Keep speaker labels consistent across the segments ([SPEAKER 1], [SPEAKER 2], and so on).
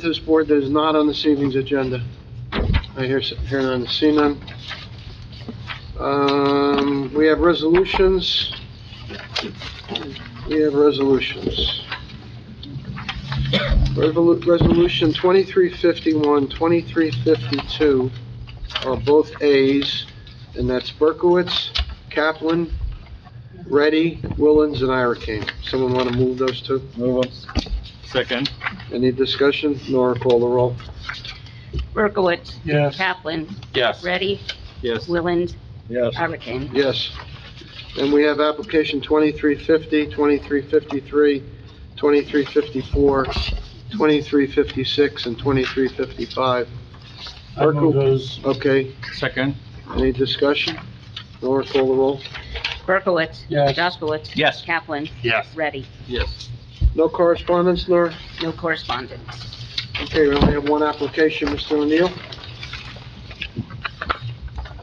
[SPEAKER 1] to this board that is not on this evening's agenda? I hear, s- hear none, see none. Um, we have resolutions. We have resolutions. Revolu- Resolution 2351, 2352 are both As, and that's Berkowitz, Kaplan, Reddy, Willens, and Irakin. Someone want to move those two?
[SPEAKER 2] Move on. Second.
[SPEAKER 1] Any discussion? Nora, call the roll.
[SPEAKER 3] Berkowitz.
[SPEAKER 2] Yes.
[SPEAKER 3] Kaplan.
[SPEAKER 2] Yes.
[SPEAKER 3] Ready,
[SPEAKER 2] Yes.
[SPEAKER 3] Willand.
[SPEAKER 2] Yes.
[SPEAKER 3] Hurricane.
[SPEAKER 1] Yes. And we have application 2350, 2353, 2354, 2356, and 2355.
[SPEAKER 4] I move those,
[SPEAKER 1] Okay,
[SPEAKER 2] Second.
[SPEAKER 1] any discussion? Nora, call the roll.
[SPEAKER 3] Berkowitz.
[SPEAKER 4] Yes.
[SPEAKER 3] Jaskowitz.
[SPEAKER 2] Yes.
[SPEAKER 3] Kaplan.
[SPEAKER 2] Yes.
[SPEAKER 3] Ready,
[SPEAKER 2] Yes.
[SPEAKER 1] No correspondence, Nora?
[SPEAKER 3] no correspondence.
[SPEAKER 1] Okay, we only have one application, Mr. O'Neill.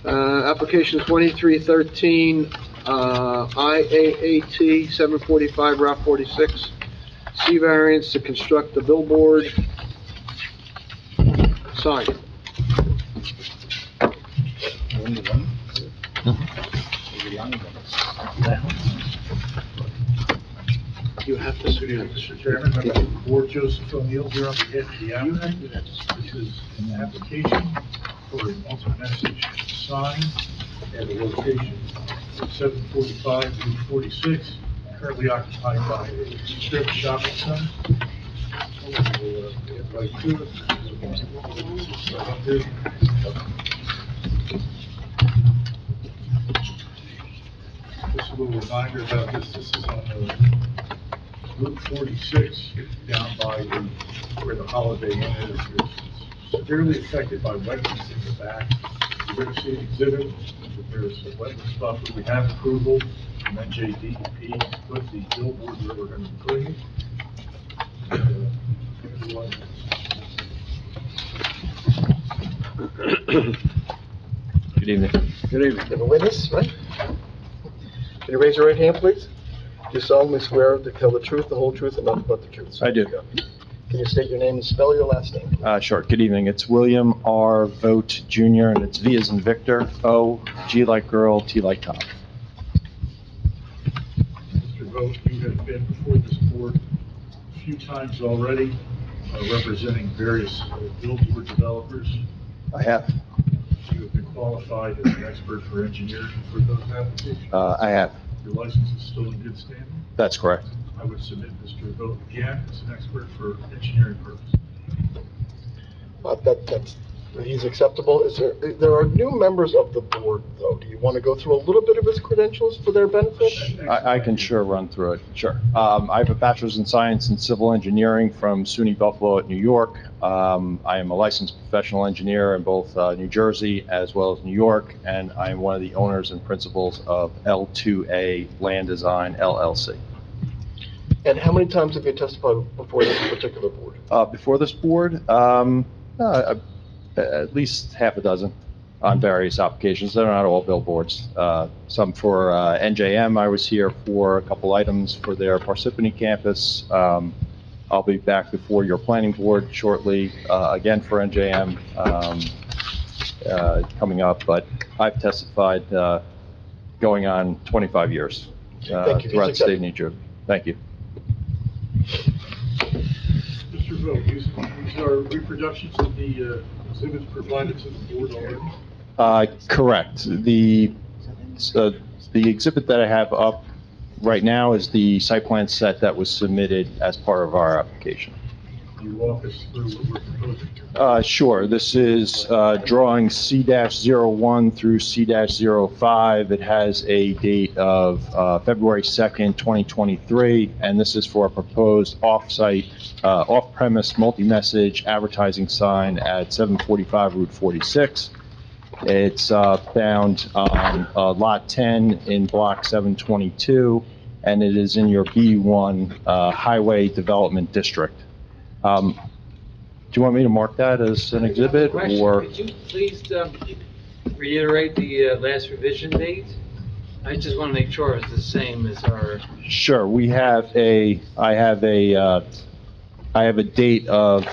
[SPEAKER 1] Uh, application 2313, uh, IAAT 745 Route 46, C variance to construct the billboard sign.
[SPEAKER 2] Only one? Only one.
[SPEAKER 1] You have to sit down,
[SPEAKER 4] Mr. Chairman, I'm Ward Joseph O'Neill here on behalf of the applicant. This is an application for an alternate message sign at a location of 745 Route 46, currently occupied by a strip shopping center. We'll, uh, get right to it. Just a little reminder about this, this is on the Route 46 down by the, where the Holiday Inn is, is severely affected by wetlands in the back. You're going to see an exhibit, there's a wetlands buffer, we have approval, and then JDEP put the billboard where we're going to be putting it. And, uh, everyone-
[SPEAKER 2] Good evening.
[SPEAKER 1] Good evening. You have a witness, right? Can you raise your right hand, please? Do you solemnly swear to tell the truth, the whole truth, and nothing but the truth?
[SPEAKER 5] I do.
[SPEAKER 1] Can you state your name and spell your last name?
[SPEAKER 5] Uh, Sure. Good evening. It's William R. Vogt Jr., and it's V as in Victor, O, G like girl, T like Tom.
[SPEAKER 4] Mr. Vogt, you have been before this board a few times already, uh, representing various uh, billboard developers.
[SPEAKER 5] I have.
[SPEAKER 4] You have been qualified as an expert for engineering for those applications.
[SPEAKER 5] Uh, I have.
[SPEAKER 4] Your license is still in good standing.
[SPEAKER 5] That's correct.
[SPEAKER 4] I would submit Mr. Vogt again as an expert for engineering purposes.
[SPEAKER 6] Uh, That, that's, he's acceptable. Is there, there are new members of the board, though. Do you want to go through a little bit of his credentials for their benefit?
[SPEAKER 5] I, I can sure run through it, sure. Um, I have a bachelor's in science and civil engineering from SUNY Buffalo at New York. Um, I am a licensed professional engineer in both, uh, New Jersey as well as New York, and I am one of the owners and principals of L2A Land Design LLC.
[SPEAKER 6] And how many times have you testified before this particular board?
[SPEAKER 5] uh, before this board, um, uh, at least half a dozen on various applications. They're not all billboards. Uh, some for uh, NJM. I was here for a couple items for their Parsippany campus. Um, I'll be back before your planning board shortly uh, again for NJM um, uh, coming up. But I've testified uh, going on 25 years uh,
[SPEAKER 6] Thank you.
[SPEAKER 5] throughout the state of New Jersey. Thank you.
[SPEAKER 4] Mr. Vogt, these these are reproductions of the uh, exhibits provided to the board already.
[SPEAKER 5] Uh, Correct. The, uh, the exhibit that I have up right now is the site plan set that was submitted as part of our application.
[SPEAKER 4] Can You walk us through what we're proposing.
[SPEAKER 5] Uh, Sure, this is uh, drawing C-01 through C-05. It has a date of uh, February 2nd, 2023, and this is for a proposed off-site, uh, off-premise multi-message advertising sign at 745 Route 46. It's uh, found on uh, Lot 10 in Block 722, and it is in your B1 uh, Highway Development District. Um, do you want me to mark that as an exhibit,
[SPEAKER 7] Question,
[SPEAKER 5] or?
[SPEAKER 7] Could you please um, reiterate the uh, last revision date? I just want to make sure it's the same as our,
[SPEAKER 5] Sure, we have a, I have a, uh, I have a date of